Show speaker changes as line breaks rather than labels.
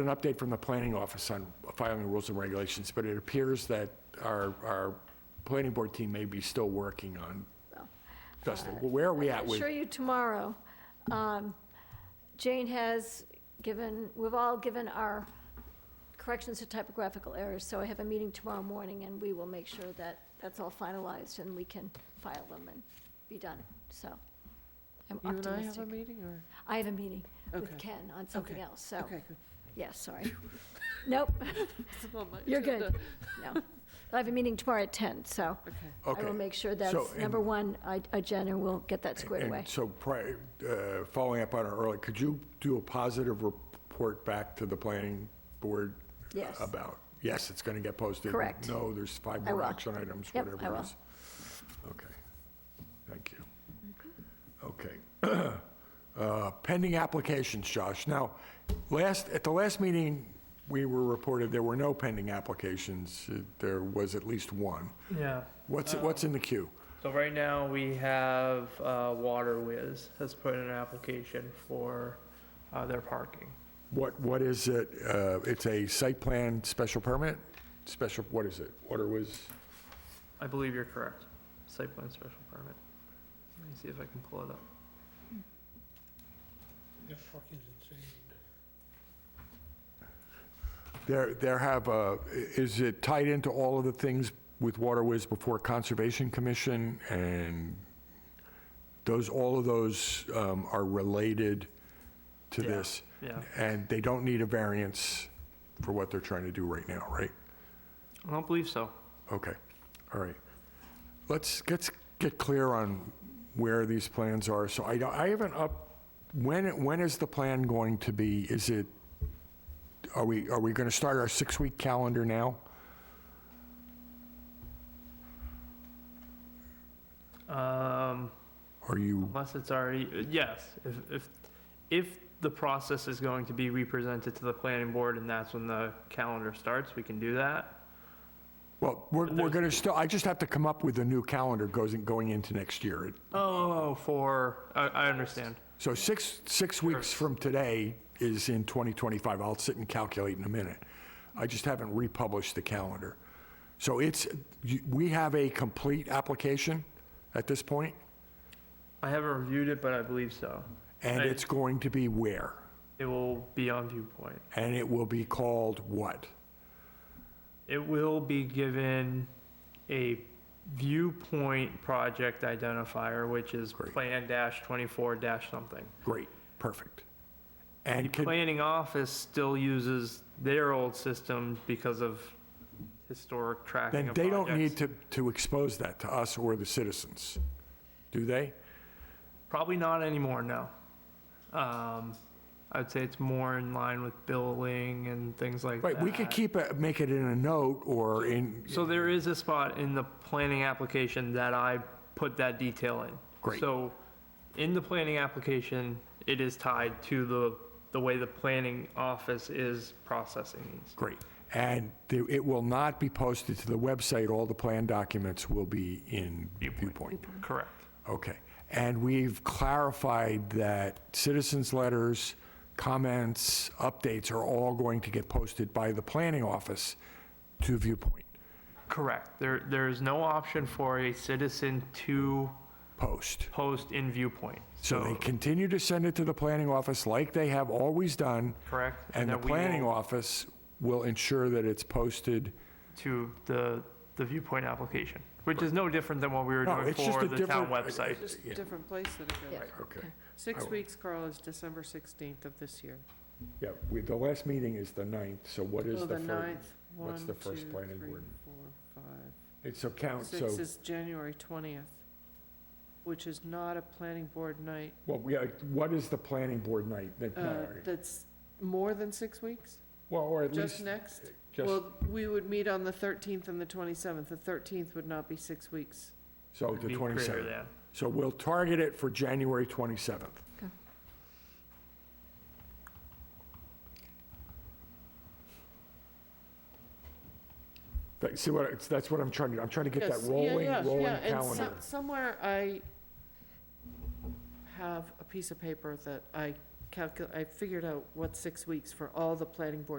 an update from the planning office on filing rules and regulations, but it appears that our, our planning board team may be still working on, Dustin, where are we at
I'll
with?
show you tomorrow. Um, Jane has given, we've all given our corrections to typographical errors, so I have a meeting tomorrow morning, and we will make sure that that's all finalized, and we can file them and be done, so I'm
You and I have
optimistic.
a meeting, or?
I have a meeting with
Okay.
Ken on something
Okay.
else, so,
Okay, good.
yeah, sorry. Nope,
It's on my
You're good.
agenda.
no. I have a meeting tomorrow at 10, so
Okay.
I will
Okay.
make sure
So,
that's number
and-
one I- agenda, and we'll get that squared away.
And so, pri- uh, following up on our earlier, could you do a positive report back to the planning board?
Yes.
About, yes, it's going to get posted?
Correct.
No, there's five
I
more
will.
action items,
Yep,
whatever
I
it
will.
is. Okay, thank you. Okay. Uh, Pending applications, Josh. Now, last, at the last meeting, we were reported there were no pending applications. Uh, There was at least one.
Yeah.
What's, what's in the queue?
So right now we have uh, Water Whiz has put in an application for uh, their parking.
What, what is it? Uh, It's a site plan special permit? Special, what is it? Water was,
I believe you're correct. Site plan special permit. Let me see if I can pull it up.
They're fucking insane.
there, there have, uh, is it tied into all of the things with Water Whiz before Conservation Commission? And those, all of those um, are related to
Yeah.
this?
Yeah.
And they don't need a variance for what they're trying to do right now, right?
I don't believe so.
Okay, all right. Let's, let's get clear on where these plans are. So I don't, I haven't up, when, when is the plan going to be? Is it, are we, are we going to start our six-week calendar now?
Um,
Are you,
unless it's already yes. If if if the process is going to be represented to the planning board and that's when the calendar starts, we can do that.
well, we're, we're
There's-
going to still, I just have to come up with a new calendar goes, going into next year.
Oh, for I, I understand.
So six, six weeks from today is in 2025. I'll sit and calculate in a minute. I just haven't republished the calendar. So it's, you- we have a complete application at this point,
I haven't reviewed it, but I believe so.
and
Right.
it's going to be where?
It will be on viewpoint.
And it will be called what?
It will be given a viewpoint project identifier, which is
Great.
Plan dash twenty-four dash something.
Great, perfect.
The
And can,
planning office still uses their old system because of historic tracking
then
of
they don't need
projects.
to, to expose that to us or the citizens, do they?
Probably not anymore, no. Um, I'd say it's more in line with billing and things like that.
Right, we could keep, it, make it in a note or in,
So there is a spot in the planning application that I put that detail in.
Great.
So in the planning application, it is tied to the, the way the planning office is processing these.
Great. And the- it will not be posted to the website, all the plan documents will be in viewpoint.
Correct.
Okay. And we've clarified that citizens' letters, comments, updates are all going to get posted by the planning office to viewpoint,
Correct. There, there is no option for a citizen to
post.
post in viewpoint.
So they continue to send it to the planning office like they have always done,
Correct.
and the
that we
planning
will-
office will ensure that it's posted.
To the, the viewpoint application, which is no different than what we were
No,
doing
it's just
for
a
the town
different-
website.
Just
Yeah.
a different place that it
Yeah.
goes.
Okay.
Six
Oh.
weeks, Carl, is December 16th of this year.
Yeah, we- the last meeting is the 9th, so what is
Oh,
the
the
first?
ninth.
what's
One,
the first
two,
planning
three,
board?
four, five.
It's so count, so,
Six is January 20th, which is not a planning board night.
well, yeah, what is the planning board night? that-
Uh,
no,
That's more than six weeks,
Well, or at
just
least,
next.
just,
Well, we would meet on the 13th and the 27th. The 13th would not be six weeks.
so
would
Oh, the
be greater
27th.
than.
So we'll target it for January 27th.
Okay.
But See what, it's- that's what I'm trying to, I'm trying to get that
Yes, yeah,
rolling,
yeah,
rolling
yeah, and so-
calendar.
Somewhere I have a piece of paper that I calcul, I figured out what six weeks for all the planning board